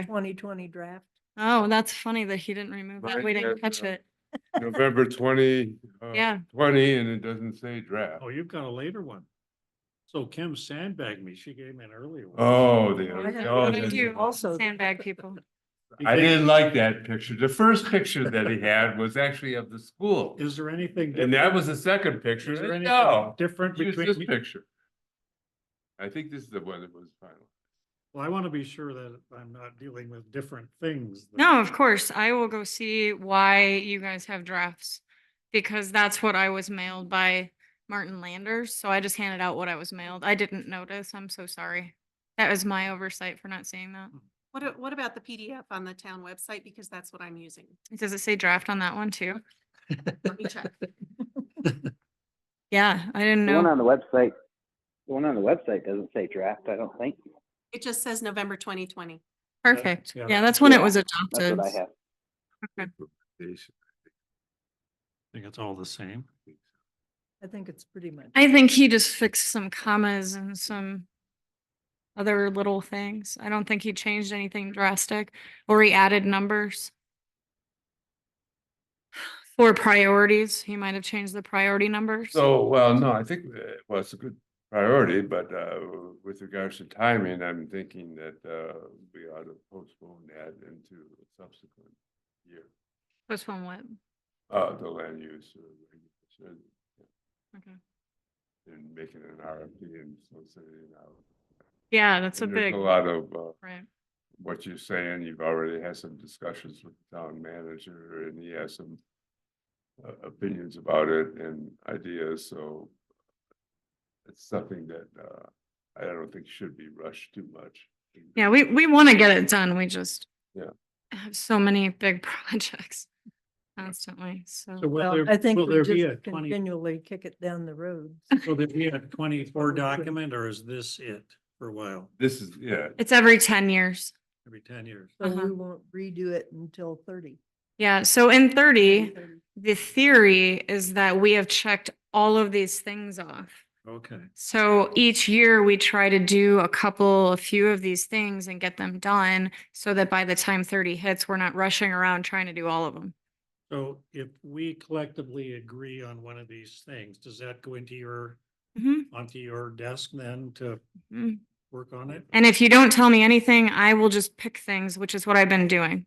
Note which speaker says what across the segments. Speaker 1: twenty twenty draft.
Speaker 2: Oh, that's funny that he didn't remove that.
Speaker 3: Right,
Speaker 2: We didn't
Speaker 3: yeah,
Speaker 2: catch
Speaker 3: yeah.
Speaker 2: it.
Speaker 3: November twenty, uh,
Speaker 2: Yeah.
Speaker 3: twenty, and it doesn't say draft.
Speaker 4: Oh, you've got a later one. So Kim sandbagged me. She gave me an earlier one.
Speaker 3: Oh,
Speaker 2: I
Speaker 3: the.
Speaker 2: don't know
Speaker 3: oh,
Speaker 2: what I
Speaker 3: that's-
Speaker 2: do.
Speaker 1: Also-
Speaker 2: Sandbag people.
Speaker 4: You
Speaker 3: I
Speaker 4: think-
Speaker 3: didn't like that picture. The first picture that he had was actually of the school.
Speaker 4: Is there anything?
Speaker 3: And
Speaker 4: different-
Speaker 3: that was the second picture.
Speaker 4: Is there anything
Speaker 3: No,
Speaker 4: Different
Speaker 3: use this
Speaker 4: between,
Speaker 3: picture. I think this is the one that was final.
Speaker 4: well, I want to be sure that I'm not dealing with different things. than-
Speaker 2: No, of course. I will go see why you guys have drafts because that's what I was mailed by Martin Landers. So I just handed out what I was mailed. I didn't notice. I'm so sorry. That was my oversight for not seeing that.
Speaker 5: What, a- what about the PDF on the town website? Because that's what I'm using.
Speaker 2: Does it say draft on that one too?
Speaker 5: Let me check.
Speaker 2: Yeah, I didn't
Speaker 6: The one
Speaker 2: know.
Speaker 6: on the website, the one on the website doesn't say draft, I don't think.
Speaker 5: It just says November twenty twenty.
Speaker 2: Perfect.
Speaker 4: yeah.
Speaker 2: Yeah, that's when it
Speaker 6: Yeah,
Speaker 2: was
Speaker 6: That's
Speaker 2: adopted.
Speaker 6: what I have.
Speaker 4: I think it's all the same.
Speaker 1: I think it's pretty much.
Speaker 2: I think he just fixed some commas and some other little things. I don't think he changed anything drastic or he added numbers. For priorities, he might have changed the priority numbers.
Speaker 3: So, well, no, I think, uh, well, it's a good priority, but uh, with regards to timing, I'm thinking that uh, we ought to postpone that into a subsequent year,
Speaker 2: Postpone what?
Speaker 3: uh, the land use. uh, regulation
Speaker 2: Okay.
Speaker 3: And making an RFP and so sending it out.
Speaker 2: Yeah, that's a
Speaker 3: And there's
Speaker 2: big,
Speaker 3: A lot of uh,
Speaker 2: right.
Speaker 3: what you're saying, you've already had some discussions with the town manager and he has some uh, opinions about it and ideas, so it's something that uh, I don't think should be rushed too much.
Speaker 2: Yeah, we, we want to get it done. We just
Speaker 3: Yeah.
Speaker 2: have so many big projects constantly,
Speaker 4: So
Speaker 2: so.
Speaker 4: will
Speaker 1: Well,
Speaker 4: there,
Speaker 1: I think
Speaker 4: will
Speaker 1: we
Speaker 4: there be a
Speaker 1: just
Speaker 4: twenty,
Speaker 1: continually kick it down the road.
Speaker 4: will there be a twenty-four document or is this it for a while,
Speaker 3: This is, yeah,
Speaker 2: It's every ten years.
Speaker 4: every ten years?
Speaker 1: So
Speaker 2: Uh-huh.
Speaker 1: we won't redo it until thirty.
Speaker 2: Yeah, so in thirty,
Speaker 1: 30.
Speaker 2: the theory is that we have checked all of these things off.
Speaker 4: Okay.
Speaker 2: So each year we try to do a couple, a few of these things and get them done so that by the time thirty hits, we're not rushing around trying to do all of them.
Speaker 4: So if we collectively agree on one of these things, does that go into your, onto your desk then to
Speaker 2: Mhm.
Speaker 4: work on it?
Speaker 2: And if you don't tell me anything, I will just pick things, which is what I've been doing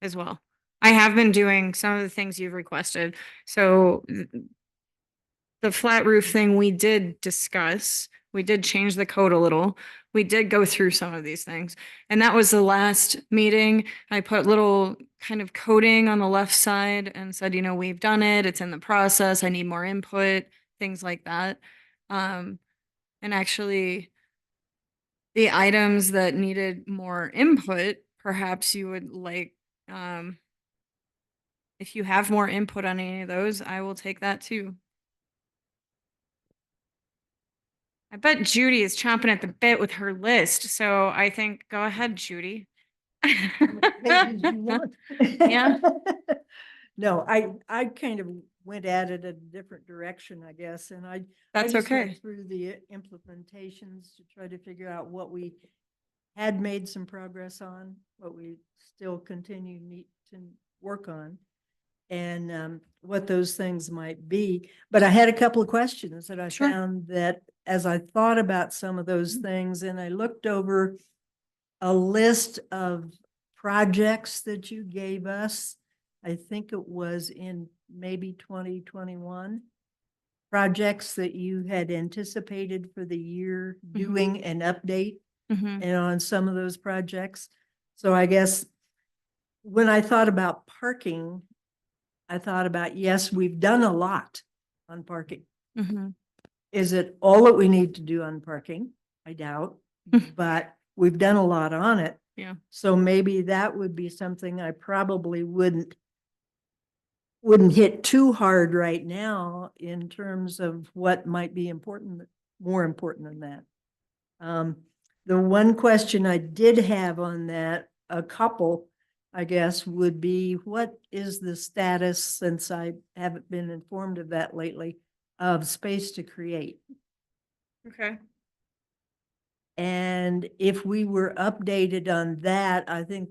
Speaker 2: as well. I have been doing some of the things you've requested. So th- the flat roof thing, we did discuss, we did change the code a little. We did go through some of these things. And that was the last meeting. I put little kind of coding on the left side and said, you know, we've done it. It's in the process. I need more input, things like that. Um, and actually, the items that needed more input, perhaps you would like, um, if you have more input on any of those, I will take that too. I bet Judy is chomping at the bit with her list, so I think, go ahead, Judy.
Speaker 1: Maybe you want.
Speaker 2: Yeah.
Speaker 1: No, I, I kind of went at it a different direction, I guess, and I I
Speaker 2: That's
Speaker 1: just went
Speaker 2: okay.
Speaker 1: Through the uh, implementations to try to figure out what we had made some progress on, what we still continue need to work on. And um, what those things might be, but I had a couple of questions that I
Speaker 2: Sure. Mm-hmm.
Speaker 1: found that as I thought about some of those things and I looked over. A list of projects that you gave us. I think it was in maybe twenty twenty-one projects that you had anticipated for the year
Speaker 2: Mhm.
Speaker 1: doing an update
Speaker 2: Mhm.
Speaker 1: and on some of those projects. So I guess when I thought about parking, I thought about, yes, we've done a lot on parking.
Speaker 2: Mhm.
Speaker 1: Is it all that we need to do on parking? I doubt,
Speaker 2: Mhm.
Speaker 1: but we've done a lot on it.
Speaker 2: Yeah.
Speaker 1: So maybe that would be something I probably wouldn't wouldn't hit too hard right now in terms of what might be important, more important than that. Um, the one question I did have on that, a couple, I guess, would be what is the status, since I haven't been informed of that lately, of space to create?
Speaker 2: Okay.
Speaker 1: And if we were updated on that, I think